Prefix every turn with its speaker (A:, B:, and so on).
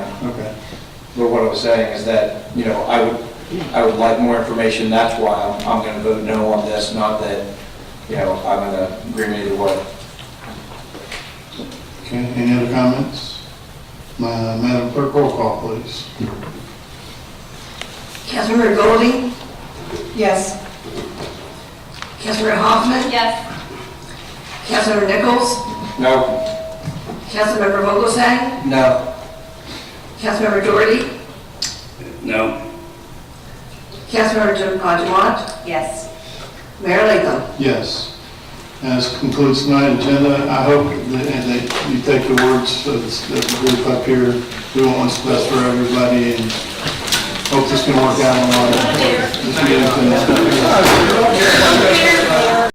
A: But what I was saying is that, you know, I would, I would like more information, that's why I'm, I'm gonna vote no on this, not that, you know, I'm gonna agree either way.
B: Okay, any other comments? Ma- Madam Clerk, roll call, please.
C: Councilmember Goldie,
D: Yes.
C: Councilmember Hoffman,
E: Yes.
C: Councilmember Nichols,
A: No,
C: Councilmember Vogelsang,
A: no,
C: Councilmember Doherty,
F: No.
C: Councilmember Du- uh, Dumont,
D: Yes.
C: Mayor Latham.
B: Yes. As concludes tonight's agenda, I hope that, and that you take the words of this- of the group up here, do what's best for everybody, and hope this can work out in the long run. Let's get it finished.
E: Here.